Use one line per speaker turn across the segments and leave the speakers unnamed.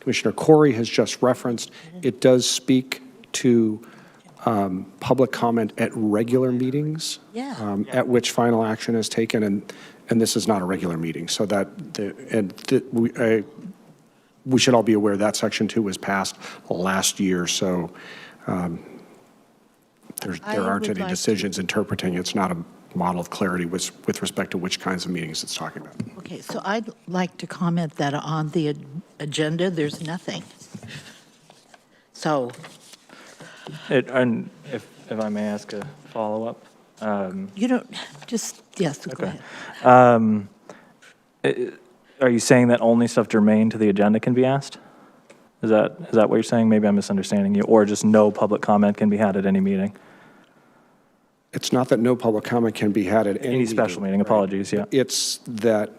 Commissioner Corey has just referenced.
Mm-hmm.
It does speak to um, public comment at regular meetings.
Yeah.
um, At which final action is taken, and, and this is not a regular meeting. So that, the and the- we, I- we should all be aware that Section 2 was passed last year, so um, there's-
I
there aren't
would
any
like to-
decisions interpreting. It's not a model of clarity with, with respect to which kinds of meetings it's talking about.
Okay, so I'd like to comment that on the ag- agenda, there's nothing. So
It- And if, if I may ask a follow-up?
you don't, just, yes, go ahead.
Are you saying that only stuff germane to the agenda can be asked? Is that, is that what you're saying? Maybe I'm misunderstanding you, or just no public comment can be had at any meeting?
It's not that no public comment can be had at any
Any special meeting, apologies, yeah.
It's that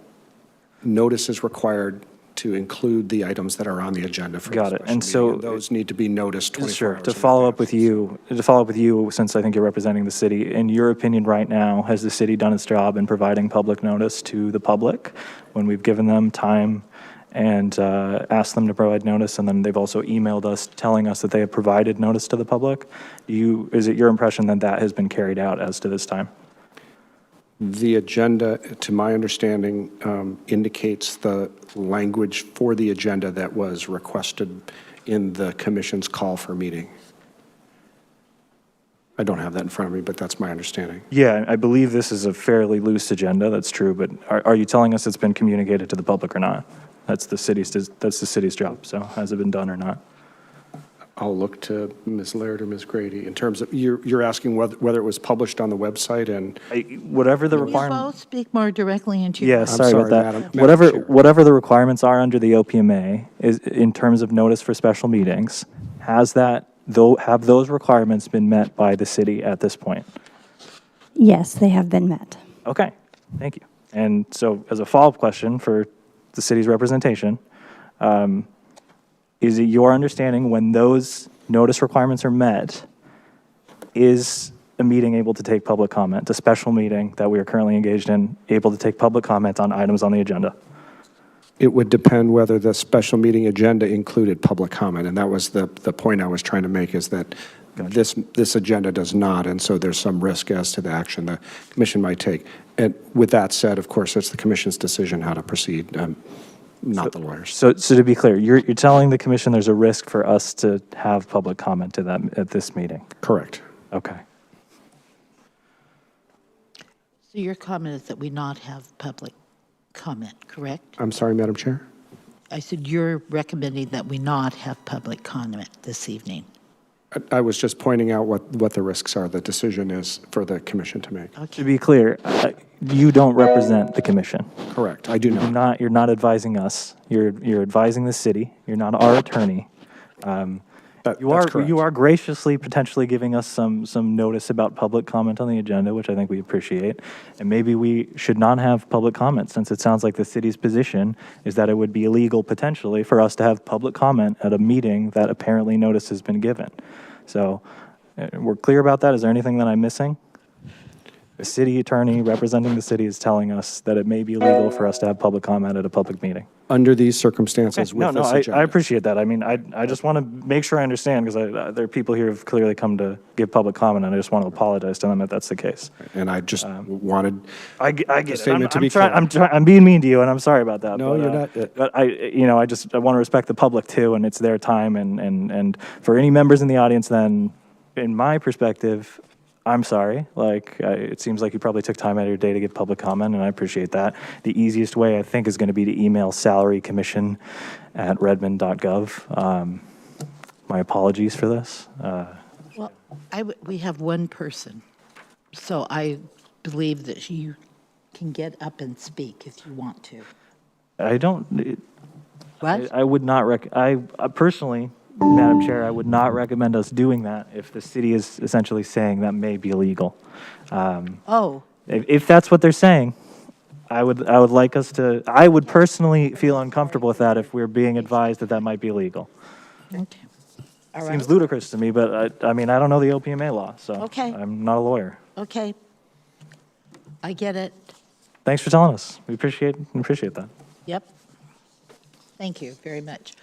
notice is required to include the items that are on the agenda for the
Got it.
special meeting,
And so-
Those need to be noticed 24
Sure,
hours.
to
in
follow up
advance.
with you, to follow up with you, since I think you're representing the city, in your opinion right now, has the city done its job in providing public notice to the public when we've given them time and uh, asked them to provide notice, and then they've also emailed us telling us that they have provided notice to the public? Do you, is it your impression that that has been carried out as to this time?
The agenda, to my understanding, um, indicates the language for the agenda that was requested in the commission's call for meeting. I don't have that in front of me, but that's my understanding.
Yeah, I believe this is a fairly loose agenda, that's true, but are, are you telling us it's been communicated to the public or not? That's the city's, that's the city's job, so has it been done or not?
I'll look to Ms. Laird or Ms. Grady in terms of, you're, you're asking whether, whether it was published on the website and
I- Whatever the
Can you
requirement.
both speak more directly into your?
Yeah,
mic?
sorry
sorry,
about
Madam- Madam
that. Whatever,
Chair.
whatever the requirements are under the OPMA is, in terms of notice for special meetings, has that, though, have those requirements been met by the city at this point?
Yes, they have been met.
Okay, thank you. And so as a follow-up question for the city's representation, um, is it your understanding when those notice requirements are met, is a meeting able to take public comment, a special meeting that we are currently engaged in, able to take public comment on items on the agenda?
it would depend whether the special meeting agenda included public comment. And that was the, the point I was trying to make is that this, this agenda does not, and so there's some risk as to the action the commission might take. And with that said, of course, it's the commission's decision how to proceed, um, not the lawyers.
So, so to be clear, you're, you're telling the commission there's a risk for us to have public comment at that, at this meeting?
Correct.
Okay.
So your comment is that we not have public comment, correct?
I'm sorry, Madam Chair?
I said you're recommending that we not have public comment this evening.
I- I was just pointing out what, what the risks are, the decision is for the commission to make.
To be clear, uh, you don't represent the commission.
Correct, I do
You're
not.
not, you're not advising us. You're, you're advising the city. You're not our attorney.
That-
You
that's
are,
correct.
you are graciously potentially giving us some, some notice about public comment on the agenda, which I think we appreciate. And maybe we should not have public comment, since it sounds like the city's position is that it would be illegal potentially for us to have public comment at a meeting that apparently notice has been given. So uh, we're clear about that. Is there anything that I'm missing? The city attorney representing the city is telling us that it may be illegal for us to have public comment at a public meeting.
Under these circumstances
No,
with
no,
this
I, I
agenda.
appreciate that. I mean, I, I just want to make sure I understand because I, there are people here who've clearly come to give public comment and I just want to apologize to them if that's the case.
And I just
Um,
wanted,
I, ge- I get it. I'm,
statement to
I'm
be
trying,
clear.
I'm trying, I'm being mean to you and I'm sorry about that.
No,
but,
you're
uh,
not, uh,
But I, you know, I just, I want to respect the public too and it's their time and, and, and for any members in the audience then, in my perspective, I'm sorry. Like, I, it seems like you probably took time out of your day to give public comment and I appreciate that. The easiest way I think is going to be to email salarycommission@redmond.gov. Um, my apologies for this. Uh,
Well, I, w- we have one person, so I believe that you can get up and speak if you want to.
I don't,
What?
I I would not rec, I uh, personally, Madam Chair, I would not recommend us doing that if the city is essentially saying that may be illegal. Um,
Oh,
If, if that's what they're saying, I would, I would like us to, I would personally feel uncomfortable with that if we're being advised that that might be illegal.
okay. All right.
Seems ludicrous to me, but I, I mean, I don't know the OPMA law, so.
Okay.
I'm not a lawyer.
Okay. I get it.
Thanks for telling us. We appreciate, appreciate that.
Yep. Thank you very much.